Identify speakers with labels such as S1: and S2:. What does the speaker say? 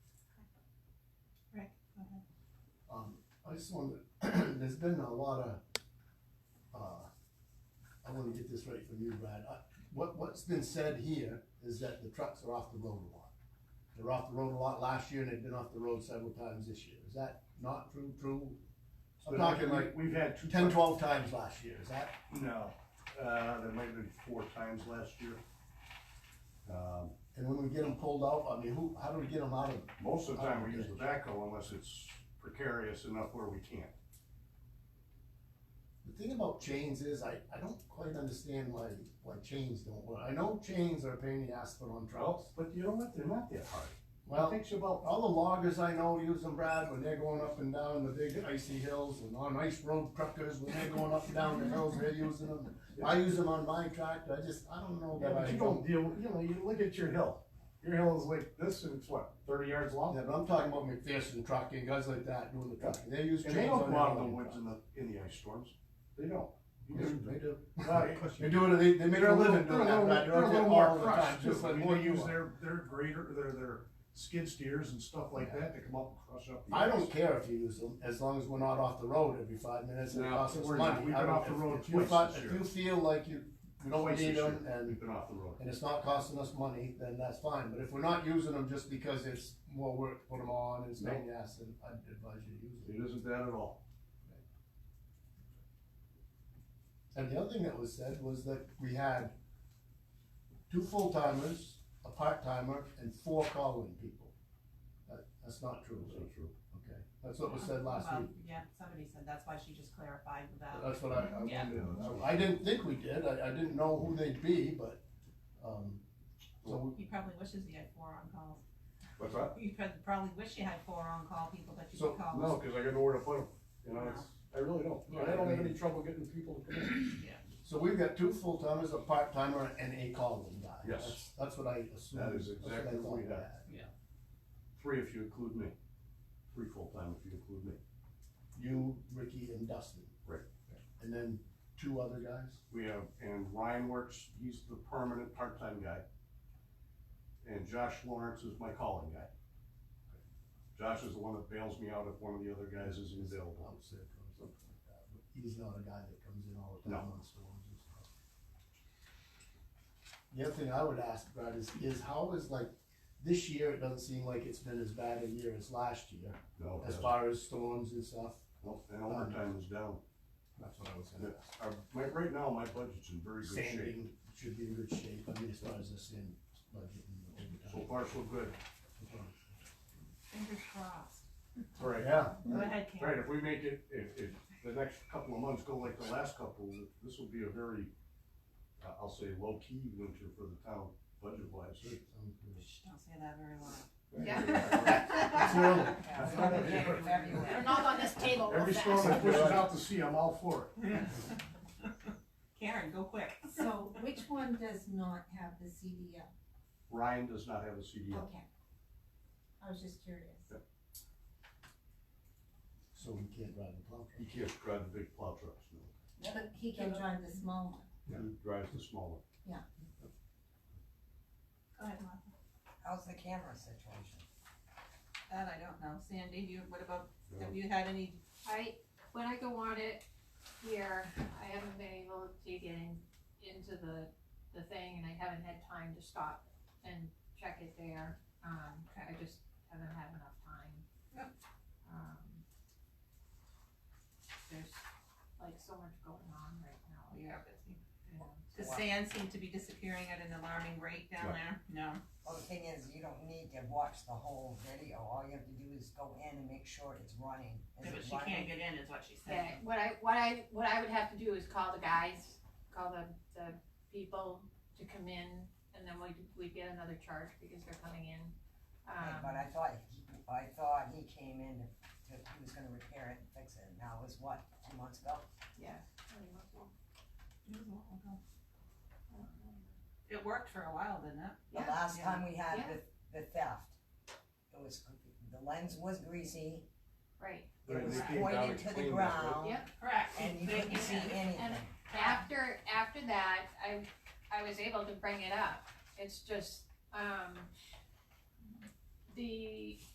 S1: just wanted, there's been a lot of, uh, I wanna get this right from you, Brad. Uh, What, what's been said here is that the trucks are off the road a lot. They're off the road a lot last year and they've been off the road several times this year. Is that not true, true? I'm
S2: But
S1: talking
S2: we-
S1: like
S2: We've had two.
S1: ten,
S2: times-
S1: twelve times last year, is that?
S2: No, uh, there might have been four times last year. Um,
S1: And when we get them pulled out, I mean, who, how do we get them out of?
S2: most of the time we use the backhoe unless it's precarious enough where we can't.
S1: The thing about chains is, I, I don't quite understand why, why chains don't work. I know chains are a pain in the ass to put on trucks.
S2: But you know what, they're not that hard.
S1: Well,
S2: It takes you about,
S1: All the loggers I know use them, Brad, when they're going up and down the big icy hills and on ice road truckers, when they're going up and down the hills, they're using them. I use them on my tractor, I just, I don't know
S2: yeah,
S1: that I.
S2: but you don't deal, you know, you look at your hill. Your hill is like this and it's what, thirty yards long?
S1: Yeah, but I'm talking about McPherson trucking, guys like that doing the trucking, they use chains
S2: And they don't
S1: on
S2: go
S1: their.
S2: out in the
S1: logging
S2: woods in the, in the ice storms. They don't. You
S1: trucks.
S2: just-
S1: They do,
S2: Well, you-
S1: they do it, they, they make
S2: They're
S1: a
S2: a little,
S1: living
S2: they're
S1: doing
S2: a
S1: that,
S2: little,
S1: Brad,
S2: they're
S1: they're
S2: a little
S1: out
S2: more
S1: all the time,
S2: crushed too.
S1: just
S2: I
S1: like
S2: mean,
S1: more
S2: they use
S1: use
S2: their, their grader, their, their skid steers and stuff like that, they come up and crush up. the
S1: I
S2: ice.
S1: don't care if you use them, as long as we're not off the road every five minutes and it
S2: No,
S1: costs us
S2: we're not.
S1: money.
S2: We've
S1: I
S2: been
S1: don't-
S2: off the
S1: if-
S2: road
S1: if you
S2: twice
S1: fi-
S2: this
S1: If
S2: year.
S1: you feel like you, you don't
S2: Twice this
S1: need them
S2: year,
S1: and
S2: We've been off the road.
S1: and it's not costing us money, then that's fine, but if we're not using them just because it's more work to put them on, and it's
S2: No.
S1: pain in the ass, then I'd advise you to use them.
S2: It isn't that at all.
S1: And the other thing that was said was that we had two full timers, a part timer, and four calling people. That, that's not true, is it?
S2: true.
S1: okay, that's what was said last
S3: Um,
S4: Well,
S1: week,
S4: Yeah, somebody said, that's why she just clarified without,
S1: that's what I, I
S4: Yeah.
S1: wondered,
S2: Yeah, that's-
S1: I didn't think we did, I, I didn't know who they'd be, but, um, so,
S4: he probably wishes he had four on-calls.
S2: What's that?
S4: You prob- probably wish you had four on-call people that you
S1: So,
S4: could call.
S2: No, cause I got nowhere to put them, you know, it's, I really don't.
S1: Yeah,
S2: I
S1: I
S2: don't have
S1: agree.
S2: any trouble getting people to come in.
S1: so we've got two full timers, a part timer, and a calling guy.
S2: Yes.
S1: That's- That's what I assumed.
S2: That is
S1: That's what I
S2: exactly what we
S1: thought
S2: had.
S1: had.
S2: Three if you include me. Three full-time if you include me.
S1: you, Ricky, and Dustin.
S2: Right.
S1: And then two other guys.
S2: We have, and Ryan works, he's the permanent part-time guy. And Josh Lawrence is my calling guy. Josh is the one that bails me out if one of the other guys isn't available.
S1: I'm sick or something like that, but he's not a guy that comes in all the time
S2: No.
S1: on storms and stuff. The other thing I would ask, Brad, is, is how is like, this year, it doesn't seem like it's been as bad a year as last year,
S2: No,
S1: as far as storms and stuff.
S2: no, and overtime is down.
S1: That's what I was
S2: Yeah,
S1: gonna ask.
S2: Our, my, right now, my budget's in very good shape.
S1: Sanding should be in good shape, I mean, as far as the sand budget and
S2: So
S1: overtime.
S2: far, so good.
S4: Fingers crossed.
S2: All right.
S1: Yeah,
S4: Go ahead,
S2: All right,
S4: Karen.
S2: if we make it, if, if the next couple of months go like the last couple, this will be a very, uh, I'll say, low-key winter for the town budget-wise.
S1: sounds good.
S4: Shh, Don't say that very loud.
S1: It's early.
S4: Yeah, it's gonna be everywhere.
S5: They're not on this table. real
S2: Every
S5: fast.
S2: storm that pushes out to sea, I'm all for it.
S4: Karen, go quick.
S6: So which one does not have the CDL?
S2: Ryan does not have a CDL.
S6: Okay. I was just curious.
S1: So we can't drive the plow
S2: He
S1: truck.
S2: can't drive the big plow trucks, no.
S6: But he can drive the small one.
S2: He drives the smaller.
S4: Go ahead, Martha.
S3: How's the camera situation?
S4: That I don't know. Sandy, you, what about,
S2: you know.
S4: have you had any,
S7: I, when I go on it here, I haven't been able to get in, into the, the thing and I haven't had time to stop and check it there. Um, I just haven't had enough time.
S4: Yep.
S7: Um, there's like so much going on right now,
S4: we are busy.
S7: you know.
S4: The
S3: Wow.
S4: sand seemed to be disappearing at an alarming rate down there. No.
S3: Well, the thing is, you don't need to watch the whole video, all you have to do is go in and make sure it's running. Is
S4: But
S3: it
S4: she can't
S3: running?
S4: get in is what she
S7: Yeah,
S4: said.
S7: what I, what I, what I would have to do is call the guys, call the, the people to come in, and then we'd, we'd get another charge because they're coming in.
S3: Yeah, But
S7: Um,
S3: I thought, he- I thought he came in to, to- he was gonna repair it and fix it, and that was what, two months ago?
S7: yeah. pretty much.
S4: It was a while ago. It worked for a while, didn't it?
S3: The
S7: Yeah,
S3: last
S4: yeah.
S3: time we had
S7: Yeah.
S3: the, the theft, it was, the lens was greasy,
S7: Right,
S2: Right,
S3: it was
S2: they came down
S3: pointed
S2: and
S3: to the
S2: cleaned us, right?
S3: ground.
S7: Yeah.
S4: Correct.
S3: And you
S4: Thank
S3: couldn't see
S4: Sandy.
S3: anything.
S7: after, after that, I, I was able to bring it up, it's just, um, the